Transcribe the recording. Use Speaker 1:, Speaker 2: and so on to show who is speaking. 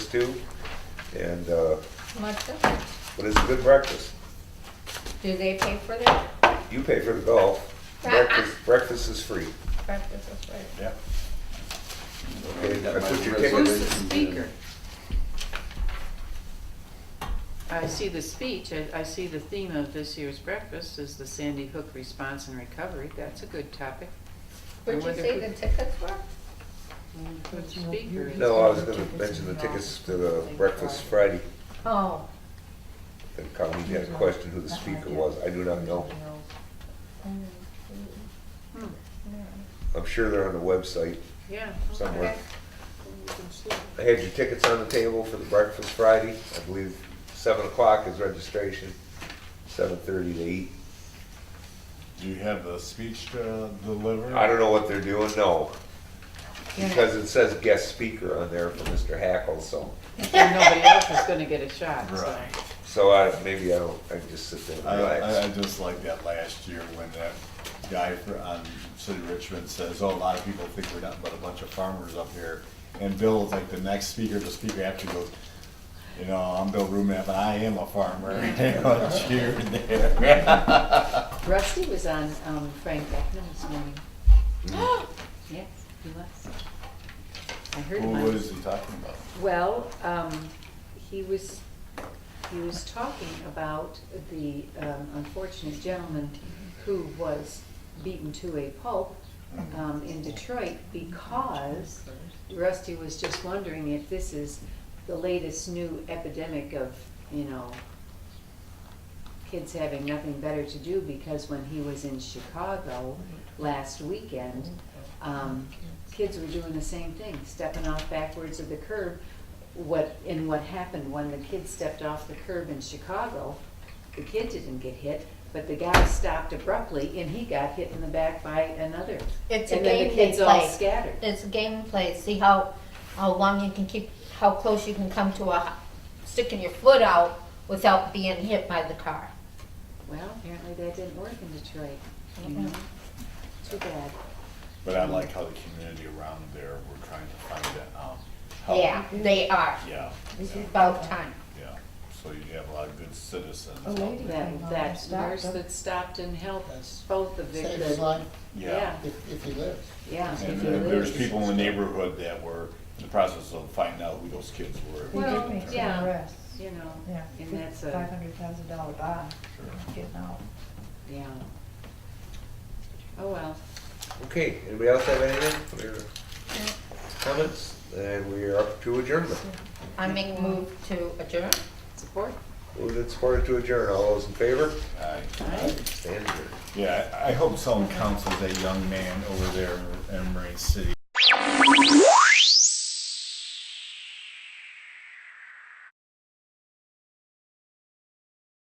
Speaker 1: stew, and, uh,
Speaker 2: Martha,
Speaker 1: but it's a good breakfast.
Speaker 2: do they pay for that?
Speaker 1: You pay for the golf, breakfast, breakfast is free.
Speaker 2: Breakfast is free.
Speaker 3: Yeah.
Speaker 1: Okay, I put your
Speaker 4: Who's
Speaker 1: ticket,
Speaker 4: the speaker?
Speaker 5: I see the speech, I, I see the theme of this year's breakfast is the Sandy Hook response and recovery, that's a good topic.
Speaker 2: Would you say the tickets were?
Speaker 5: Who's the speaker is?
Speaker 1: no, I was gonna mention the tickets to the breakfast Friday,
Speaker 2: Oh,
Speaker 1: the county had a question who the speaker was, I do not know.
Speaker 5: Hmm,
Speaker 1: I'm sure they're on the website
Speaker 5: Yeah.
Speaker 1: somewhere.
Speaker 2: okay.
Speaker 1: I had your tickets on the table for the breakfast Friday. I believe seven o'clock is registration, seven thirty to eight.
Speaker 3: Do you have the speech uh, delivered?
Speaker 1: I don't know what they're doing, no.
Speaker 2: Yeah.
Speaker 1: Because it says guest speaker on there for Mr. Hackle, so,
Speaker 5: And nobody else is gonna get a shot, so.
Speaker 3: Right.
Speaker 1: so I, maybe I don't, I just sit there
Speaker 3: I,
Speaker 1: and
Speaker 3: I, I
Speaker 1: relax.
Speaker 3: just like that last year when that guy fr- on City of Richmond says, oh, a lot of people think we're nothing but a bunch of farmers up here. And Bill's like the next speaker, the speaker after goes, you know, I'm Bill Rumap and I am a farmer. You know, cheer there.
Speaker 5: Rusty was on, um, Frank Beckman this morning. Yes, he was. I heard
Speaker 3: Who
Speaker 5: him on.
Speaker 3: was he talking about?
Speaker 5: Well, um, he was, he was talking about the um, unfortunate gentleman who was beaten to a pulp um, in Detroit because Rusty was just wondering if this is the latest new epidemic of, you know, kids having nothing better to do because when he was in Chicago last weekend, um, kids were doing the same thing, stepping off backwards of the curb. What, and what happened when the kid stepped off the curb in Chicago, the kid didn't get hit, but the guy stopped abruptly and he got hit in the back by another.
Speaker 2: It's a
Speaker 5: And then the
Speaker 2: game they
Speaker 5: kids all
Speaker 2: play.
Speaker 5: scattered.
Speaker 2: It's a game play, see how, how long you can keep, how close you can come to a, sticking your foot out without being hit by the car.
Speaker 5: Well, apparently that didn't work in Detroit, you
Speaker 2: Mm-hmm.
Speaker 5: know? Too bad.
Speaker 3: But I like how the community around there were trying to find that out. How-
Speaker 2: Yeah, they are.
Speaker 3: Yeah,
Speaker 2: This
Speaker 3: yeah,
Speaker 2: is about time.
Speaker 3: yeah. So you have a lot of good citizens.
Speaker 4: A lady- Came
Speaker 5: That,
Speaker 4: on and
Speaker 5: that
Speaker 4: stopped
Speaker 5: nurse
Speaker 4: him.
Speaker 5: that stopped and helped
Speaker 4: Yes.
Speaker 5: both of the.
Speaker 4: Saves
Speaker 5: the-
Speaker 4: his life
Speaker 3: Yeah.
Speaker 4: if, if he lives.
Speaker 5: Yeah.
Speaker 3: And
Speaker 5: if you
Speaker 3: there-
Speaker 5: lose.
Speaker 3: there's people in the neighborhood that were in the process of finding out who those kids were.
Speaker 4: He did
Speaker 5: Well,
Speaker 4: make some
Speaker 5: yeah.
Speaker 4: arrests.
Speaker 5: You know,
Speaker 4: Yeah.
Speaker 5: and that's
Speaker 4: Five
Speaker 5: a,
Speaker 4: hundred thousand dollar bond,
Speaker 3: Sure.
Speaker 4: getting out.
Speaker 5: yeah. Oh, well.
Speaker 1: Okay, anybody else have anything, for their comments? And we are up to adjournment.
Speaker 2: I make move to adjourn.
Speaker 5: Support?
Speaker 1: Moved and supported to adjourn, all those in favor?
Speaker 3: I-
Speaker 5: Aye.
Speaker 1: Stand adjourned.
Speaker 3: Yeah, I I hope someone counsels that young man over there in Marine City